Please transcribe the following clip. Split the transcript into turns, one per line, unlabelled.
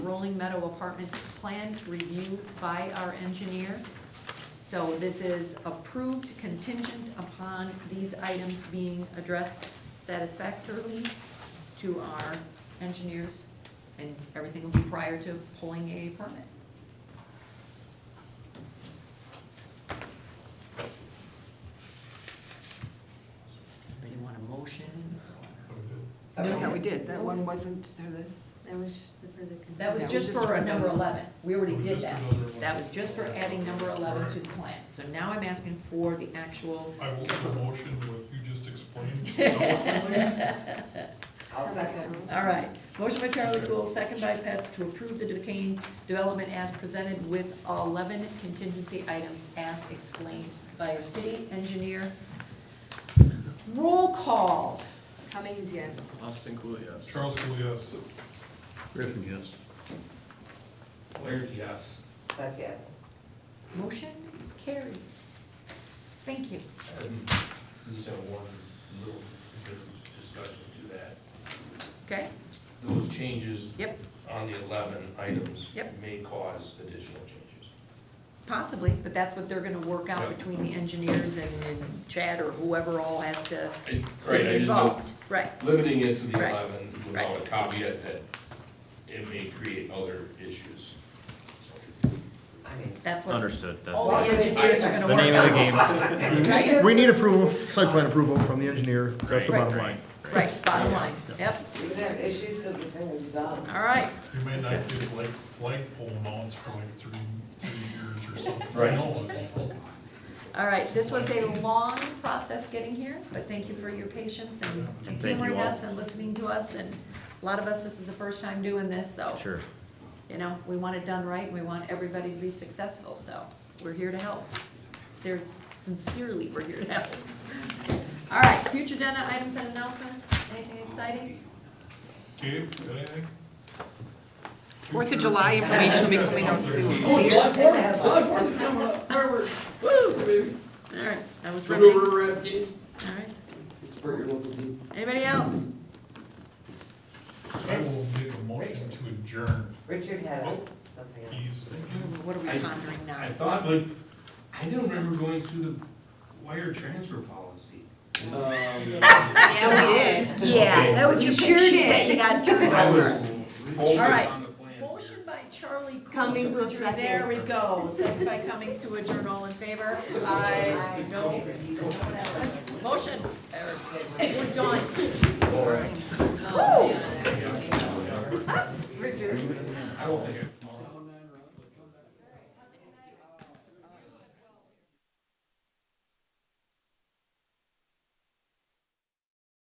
Rolling Meadow Apartments Plan Review by our engineer. So this is approved contingent upon these items being addressed satisfactorily to our engineers, and everything will be prior to pulling a permit. Do you want a motion?
I
No.
thought we did, that one wasn't through this.
That was just the, for the. con-
That was
That was
just
just
for
for
number
number-
eleven, we already
It was
did
just
that.
another one.
That was just for adding number eleven to the plan, so now I'm asking for the actual,
I will put a motion what you just explained.
I'll
all right. Motion by Charlie Cool, second by Pets, to approve the Duquesne development as presented with eleven contingency items as explained by our city engineer. Roll call,
Cummings, yes.
Austin Cool, yes.
Charles Cooley, yes.
Griffin, yes. Laird, yes.
That's yes.
motion carried. Thank you.
So one little bit of discussion to that.
Okay,
Those changes
yep,
on the 11 items
Yep.
may cause additional changes.
possibly, but that's what they're gonna work out between the engineers and and Chad or whoever all has to to
Right,
be
I just know,
involved. Right,
limiting it to the
Right,
11 without a caveat that it may create other issues. So,
I mean.
that's what
Understood,
all
that's
the engineers are
The
gonna
the
work
name of the
out.
game.
Right,
We need approval, site plan approval from the engineer, that's the
Right,
bottom line.
right, bottom line, yep,
Even have issues, cause the thing is done.
all right,
You may not get like flagpole mounts for like three, three years or something.
Right.
No, it's-
all right. This was a long process getting here, but thank you for your patience and- and
Thank you
humoring
all.
us and listening to us. And a lot of us, this is the first time doing this, so,
Sure.
you know, we want it done right, and we want everybody to be successful, so we're here to help. Ser- Sincerely, we're here to help. All right, future agenda items and announcements, anything exciting?
Gabe, got anything?
Fourth of July information will be coming out soon.
Oh,
July
All right, that was. riveting.
Remember Redskins?
All right,
Support your local team.
anybody else?
I will make a motion to adjourn.
Richard had
Oh,
something
he's thinking.
What are we
I-
pondering now?
I thought, like, I didn't remember going through the wire transfer policy.
Yeah, we did.
Yeah, that was your
You sure
sheet that you
did.
got turned
I
over.
was focused
right.
on the plans. here.
Motion by Charlie Coons.
Cummings was
Adjourn. There we
second.
go, second by Cummings to adjourn, all in favor?
Aye.
No. Motion, we're done. Oh,
Richard.
I don't think I.